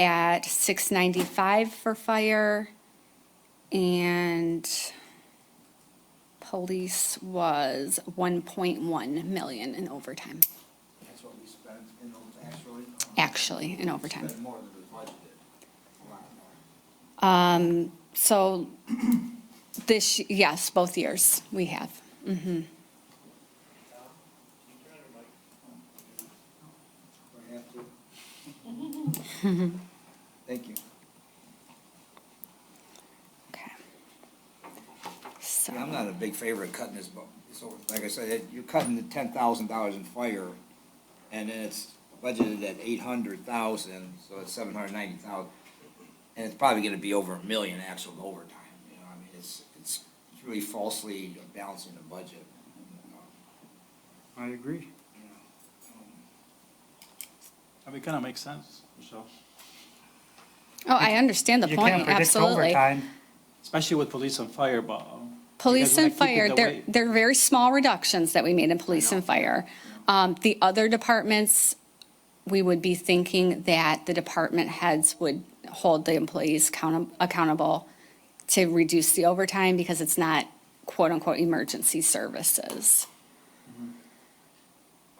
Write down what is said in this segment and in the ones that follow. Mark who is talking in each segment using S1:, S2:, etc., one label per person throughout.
S1: at 695 for fire, and police was 1.1 million in overtime,
S2: That's what we spent in those, actually.
S1: actually, in overtime.
S2: Spent more than we budgeted, a lot more.
S1: So this, yes, both years we have.
S2: We have to. Thank you.
S1: Okay.
S2: Yeah, I'm
S1: So,
S2: not a big favorite cutting this, but, so, like I said, it- you're cutting the ten thousand dollars in fire, and then it's budgeted at eight hundred thousand, so it's seven hundred ninety thousand. And it's probably gonna be over a million actual overtime, you know, I mean, it's, it's really falsely balancing the budget. uh,
S3: I agree. I mean, kind of makes sense, Michelle.
S1: oh, I understand the
S4: You
S1: point,
S4: can't predict
S1: absolutely.
S4: overtime.
S3: Especially with police and fire, but um,
S1: Police
S3: because when I
S1: and
S3: keep it
S1: fire,
S3: that
S1: they're,
S3: way-
S1: they're very small reductions that we made in police and fire. Um, the other departments, we would be thinking that the department heads would hold the employees count, accountable to reduce the overtime because it's not quote-unquote emergency services.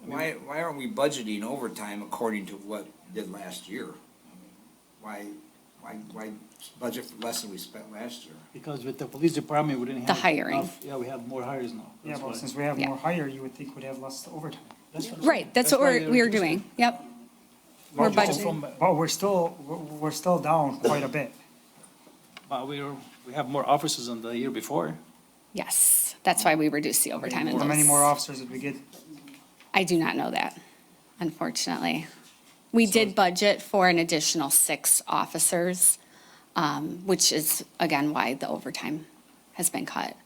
S2: Why, why aren't we budgeting overtime according to what we did last year? Why, why, why budget for less than we spent last year?
S3: because with the police department, we didn't have.
S1: The hiring.
S3: enough- Yeah, we have more hires now.
S4: Yeah,
S3: That's
S4: well,
S3: why-
S4: since we have
S1: Yeah.
S4: more hire, you would think we'd have less overtime.
S3: that's what-
S1: Right, that's what
S3: why
S1: we're,
S3: they're
S1: we're
S3: reducing.
S1: doing, yep. We're
S3: Well,
S1: budgeting.
S3: from-
S4: But we're still, we're- we're still down quite a bit.
S3: But we're, we have more officers than the year before.
S1: Yes, that's why we reduced the overtime in
S4: How many
S1: those.
S4: more officers did we get?
S1: I do not know that, unfortunately. We did budget for an additional six officers, um, which is, again, why the overtime has been cut.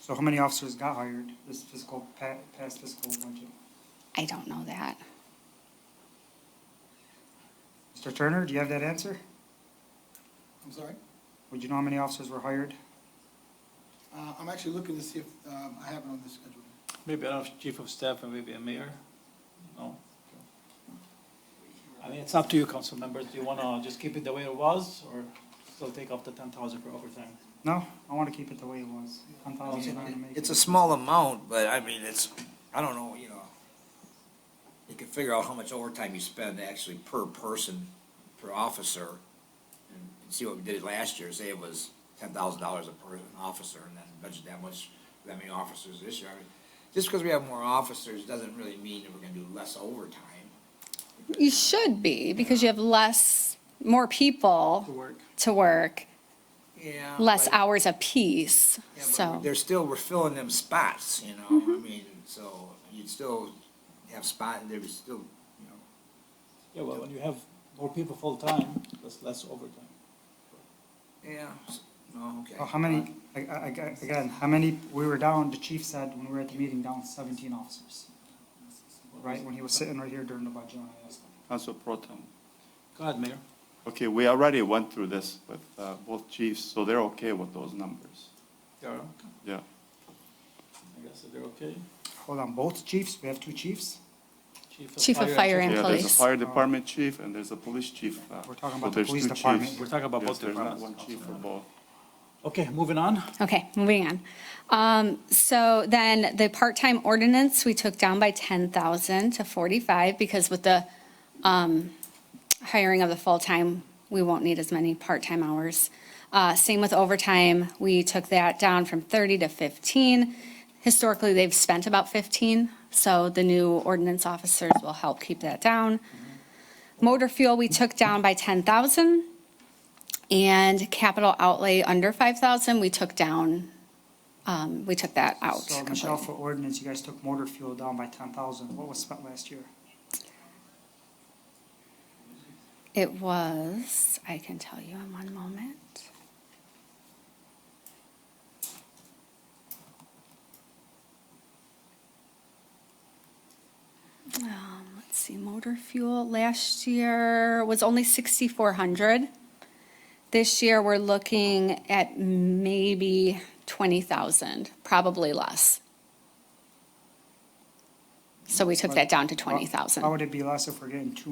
S4: So how many officers got hired this fiscal, pa- past fiscal budget?
S1: I don't know that.
S4: Mr. Turner, do you have that answer?
S5: I'm sorry?
S4: Would you know how many officers were hired?
S5: Uh, I'm actually looking to see if, um, I have it on the schedule.
S3: Maybe I don't know, chief of staff and maybe a mayor. No. I mean, it's up to you, council members. Do you want to just keep it the way it was or still take off the ten thousand for overtime?
S4: No, I want to keep it the way it was. Ten thousand nine to make
S2: It's a
S4: it.
S2: small amount, but I mean, it's, I don't know, you know. You can figure out how much overtime you spend actually per person, per officer. And and see what we did last year, say it was ten thousand dollars a per officer and then budget that much, that many officers this year. I mean, Just because we have more officers doesn't really mean that we're gonna do less overtime.
S1: You should be, because you have less, more
S3: To
S1: people
S3: work.
S1: to work,
S2: Yeah.
S1: less
S2: but-
S1: hours apiece,
S2: Yeah, but
S1: so. Mm-hmm.
S2: They're still, we're filling them spots, you know, I mean, so you'd still have spot, there was still, you know,
S3: Yeah, well, when you have more people full-time, that's less overtime.
S2: Yeah, s- no, okay.
S4: Oh, How many, I- I- I- again, how many, we were down, the chief said when we were at the meeting, down seventeen officers. Right, when he was sitting right here during the budget, when I asked him.
S6: Council Pro Tem.
S3: Go ahead, mayor.
S6: Okay, we already went through this with uh, both chiefs, so they're okay with those numbers.
S3: You're okay.
S6: Yeah.
S3: I guess they're okay.
S4: Hold on, both chiefs, we have two chiefs?
S1: Chief
S3: Oh,
S1: of Fire and
S6: Yeah, there's a
S1: Police.
S6: fire department chief and there's a police chief. uh,
S4: Oh. We're talking
S6: so
S4: about the
S6: there's
S4: police
S6: two
S4: department.
S6: chiefs.
S3: We're talking about
S6: Yes,
S3: both departments,
S6: There's not one chief for
S3: Councilman.
S6: both.
S3: Okay, moving on.
S1: Okay, moving on. Um, so then the part-time ordinance, we took down by ten thousand to forty-five because with the, um, hiring of the full-time, we won't need as many part-time hours. Uh, same with overtime, we took that down from thirty to fifteen. Historically, they've spent about fifteen, so the new ordinance officers will help keep that down. Motor fuel, we took down by ten thousand. And capital outlay under five thousand, we took down, um, we took that out.
S4: So Michelle,
S1: completely.
S4: for ordinance, you guys took motor fuel down by ten thousand. What was spent last year?
S1: It was, I can tell you in one moment. Um, let's see, motor fuel last year was only sixty-four hundred. This year, we're looking at maybe twenty thousand, probably less. So we took that down to 20,000.
S4: How would it be less if we're getting two